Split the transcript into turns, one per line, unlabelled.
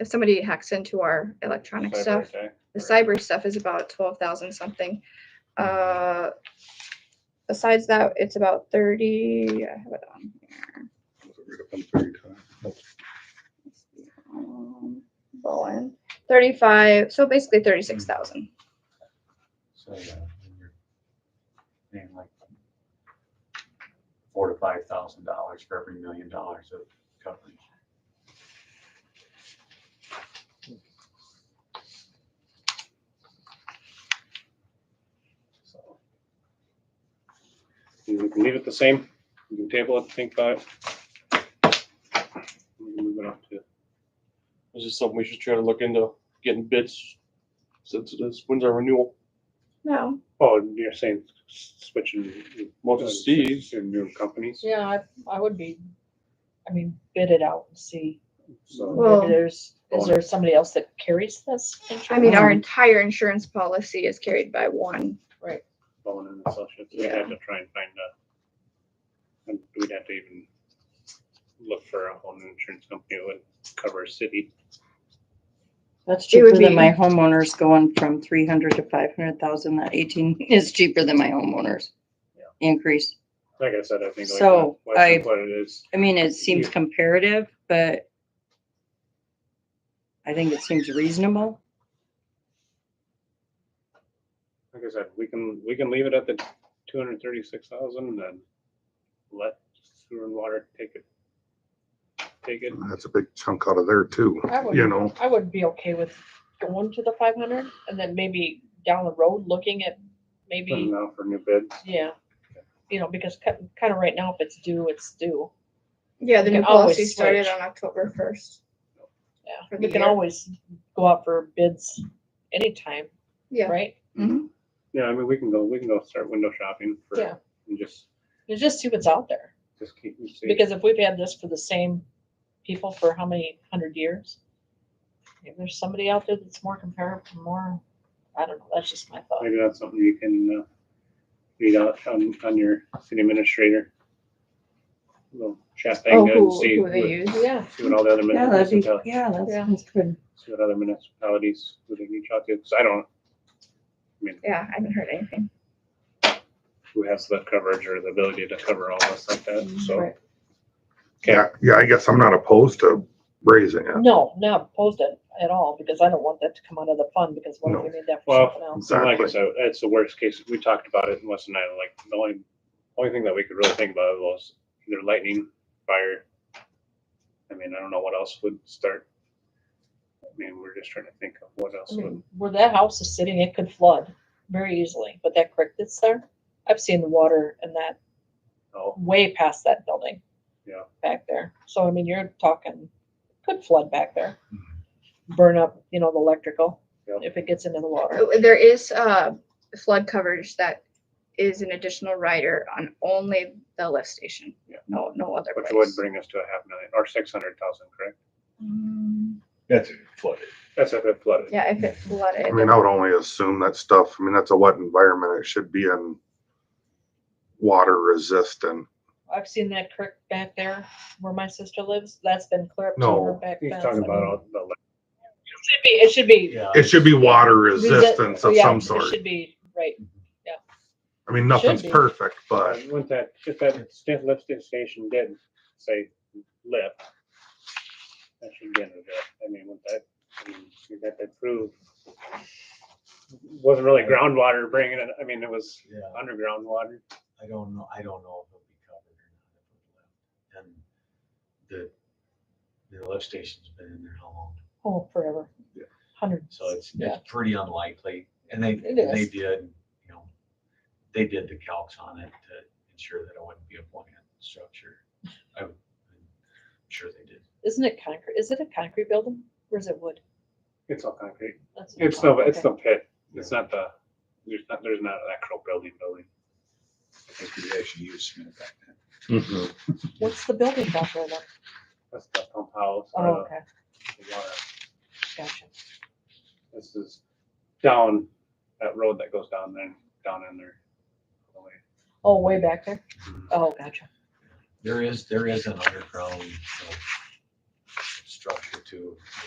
if somebody hacks into our electronic
Cyber
stuff,
attack.
the cyber stuff is about twelve thousand something. Uh, besides that, it's about thirty, I have it on here. Um, Bowen, thirty-five, so basically thirty-six thousand.
So, yeah, when you're paying like Four to five thousand dollars for every million dollars of coverage. So,
We can leave it the same. We can table it, think about it. We can move it up to. This is something we should try to look into, getting bids since it is, when's our renewal?
No,
Oh, you're saying switching. Most of Steve's. New companies.
Yeah, I, I would be, I mean, bid it out and see.
So,
Well-
Maybe there's, is there somebody else that carries this?
I mean, our
insurance?
entire insurance policy is carried by one.
Bowen and Associates, we'd have to try and find a, and we'd have to even look for a home insurance company that would cover a city.
That's
It would
cheaper than
be-
my homeowners going from three hundred to five hundred thousand. That eighteen is cheaper than my homeowners
Yeah.
increase.
Like I said, I think like
So,
what
I-
what it is,
I mean, it seems
Yeah.
comparative, but I think it seems reasonable.
like I said, we can, we can leave it at the two hundred thirty-six thousand and then let sewer and water take it. Take it.
That's a big chunk out of there too,
I would-
you know,
I would be okay with going to the five hundred and then maybe down the road, looking at
Putting
maybe,
it out for new bids.
yeah. You know, because kind, kind of right now, if it's due, it's due.
Yeah, the
You
new
can always
policy started
switch.
on October first. For
Yeah,
the
we can
year.
always go out for bids anytime,
Yeah,
right?
Mm-hmm.
Yeah, I mean, we can go, we can go start window shopping for,
Yeah.
and just,
You just see what's out there.
just keep. and see.
Because if we've had this for the same people for how many hundred years? If there's somebody out there that's more comparable, more, I don't know, that's just my thought.
Maybe that's something you can, uh, read out on, on your city administrator. Little chat thing
oh,
and
who,
see,
who they
what-
use.
Yeah,
see what all the other
Yeah, that'd be,
municipalities,
yeah, that
Yeah.
sounds good.
see what other municipalities would reach out to, because I don't,
Yeah, I haven't heard anything.
who has the coverage or the ability to cover all this like that, so.
Right.
Okay,
yeah, yeah, I guess I'm not opposed to raising it.
no, not opposed to it at all, because I don't want that to come out of the fund, because what if we need that for
Well,
something else?
so like I said, that's the worst case, we talked about it in Weston Iowa, like, the only, only thing that we could really think about was either lightning, fire. I mean, I don't know what else would start. I mean, we're just trying to think of what else
I
would,
mean, Where that house is sitting, it could flood very easily, but that creek that's there, I've seen the water in that
oh,
way past that building.
Yeah.
Back there. So I mean, you're talking, could flood back there. Burn up, you know, the electrical,
Mm-hmm. Yep.
if it gets into the water.
Uh, There is uh, flood coverage that is an additional rider on only the lift station.
Yeah.
No, no other
which would
place.
bring us to a half million or six hundred thousand, correct?
Mm,
That's flooded.
That's if it flooded.
Yeah, if it
I
flooded.
mean, I would only assume that stuff, I mean, that's a wet environment, it should be in water resistant.
I've seen that creek back there where my sister lives. That's been clear up to
No,
her back
He's
fence.
talking
I mean,
about all the, like,
It should be, it should be.
Yeah.
It should be water
resi-
resistance of
yeah,
some
it
sort.
Should be, right.
Mm-hmm.
I mean, nothing's
should be.
perfect, but
once that, if that sta- lift station did say lift, that should get it, uh, I mean, with that, I mean, you got that proved. Wasn't really groundwater bringing it, I mean, it was
Yeah,
underground water.
I don't know, I don't know if it'll be covered or not. if it's left. And the, the lift station's been in there how long?
Oh, forever.
Yeah.
Hundreds.
So it's,
Yeah.
it's pretty unlikely. And they,
It
they
is.
did, you know, they did the calcs on it to ensure that it wouldn't be a buoyant structure. I would- I'm sure they did.
Isn't it concrete? Is it a concrete building or is it wood?
It's all concrete.
That's what I'm
It's the,
talking-
it's
okay.
the pit. It's not the, there's not, there's not an actual building building.
I think we actually used cement back then.
What's the building back there then?
That's the pump house
Oh,
or
okay,
the the water.
gotcha.
This is down, that road that goes down there, down in there.
Oh, way back there?
mm-hmm.
Oh, gotcha.
There is, there is an underground, you know, structure too.